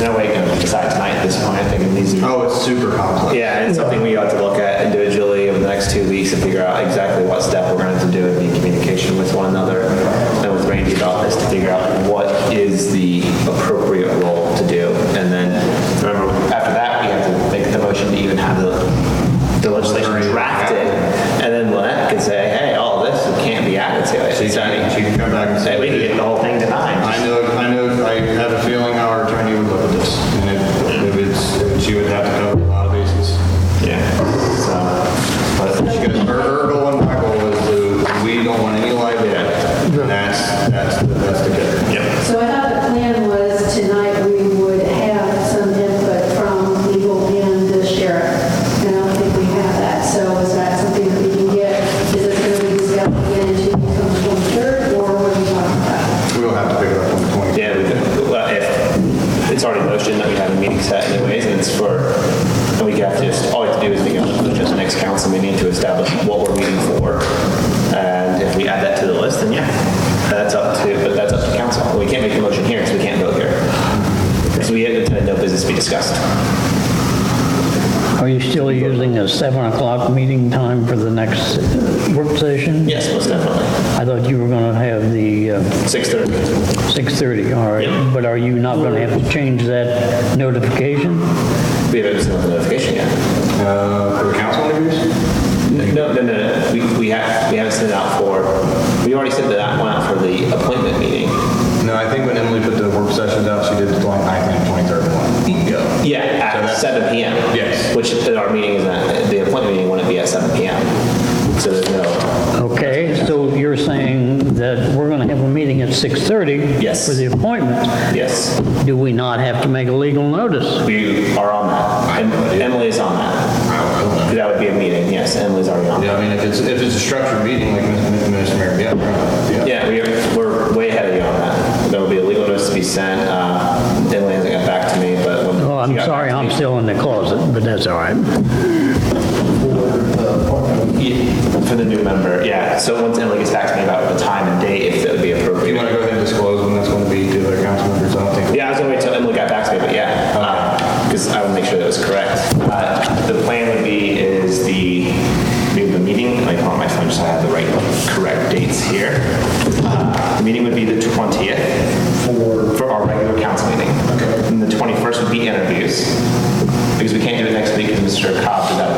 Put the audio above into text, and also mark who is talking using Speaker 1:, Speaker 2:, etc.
Speaker 1: no way to decide tonight at this point, I think it needs to be
Speaker 2: Oh, it's super complex.
Speaker 1: yeah, and it's something we ought to look at individually over the next two weeks and figure out exactly what step we're going to do and be in communication with one another and with Randy about this to figure out what is the appropriate role to do. And then, remember, after that, we have to make the motion to even have the, the legislation drafted. And then Lynette can say, hey, all this can't be added to it.
Speaker 2: She can- she can come back and say-
Speaker 1: We can get the whole thing
Speaker 2: I
Speaker 1: denied.
Speaker 2: know, I know, I have a feeling our attorney would look at this, and if- if it's, she would have to cover a lot of bases.
Speaker 1: Yeah, so, but.
Speaker 2: Because her, her goal and my goal is to, we don't want any liability. And that's, that's, that's the kicker.
Speaker 3: So I thought the plan was tonight we would have some input from legal and the sheriff. And I don't think we have that, so is that something that we can get? Is it going to be discussed again in two weeks on the 23rd, or what are we talking about?
Speaker 2: We will have to pick it up on the 20th.
Speaker 1: Yeah, we could, well, if, it's already motion that we have a meeting set anyways, and it's for, and we have to just, all we have to do is make a motion to the next council meeting to establish what we're meeting for. And if we add that to the list, then yeah, that's up to, but that's up to council. We can't make the motion here, because we can't vote here. So we have to, no business to be discussed.
Speaker 4: Are you still using the 7 o'clock meeting time for the next work session?
Speaker 1: Yes, most definitely.
Speaker 4: I thought you were going to have the uh,
Speaker 1: 6:30.
Speaker 4: 6:30, all right. But are you not going to have to change that notification?
Speaker 1: We haven't sent out the notification yet.
Speaker 2: Uh, for the council interviews?
Speaker 1: No, no, no, no, we, we have, we haven't sent it out for, we already sent that one out for the appointment meeting.
Speaker 2: No, I think when Emily put the work sessions out, she did the 29th and 23rd one. Go.
Speaker 1: Yeah, at
Speaker 2: that's-
Speaker 1: seven PM.
Speaker 2: Yes.
Speaker 1: Which at our meeting is at, the appointment meeting wouldn't be at seven PM. So there's no,
Speaker 4: Okay, so you're saying that we're going to have a meeting at 6:30?
Speaker 1: Yes.
Speaker 4: For the appointment.
Speaker 1: yes,
Speaker 4: Do we not have to make a legal notice?
Speaker 1: we are on that. Em- Emily is on that.
Speaker 2: I don't know.
Speaker 1: That would be a meeting, yes, Emily's already on.
Speaker 2: Yeah, I mean, if it's, if it's a structured meeting, like Ms. Ms. Mayor, yeah, yeah.
Speaker 1: Yeah, we are, we're way ahead of you on that. There will be a legal notice to be sent. Uh, Emily hasn't got back to me, but when.
Speaker 4: Oh,
Speaker 1: she
Speaker 4: I'm
Speaker 1: got
Speaker 4: sorry,
Speaker 1: back to
Speaker 4: I'm
Speaker 1: me-
Speaker 4: still in the closet, but that's all right.
Speaker 1: Yeah, For the new member, yeah. So once Emily gets back to me about the time and date, if that would be
Speaker 2: You want
Speaker 1: appropriate.
Speaker 2: to go ahead and disclose when that's going to be to the council members, I don't think.
Speaker 1: Yeah, I was gonna wait till Emily got back to me, but yeah, because I would make sure that was correct. Uh, The plan would be is the, we have a meeting, like on my phone, just so I have the right, correct dates here. Uh, The meeting would be the 20th. For? For our regular council meeting. Okay. And the 21st would be interviews, because we can't do it next week because Mr. Cobb did that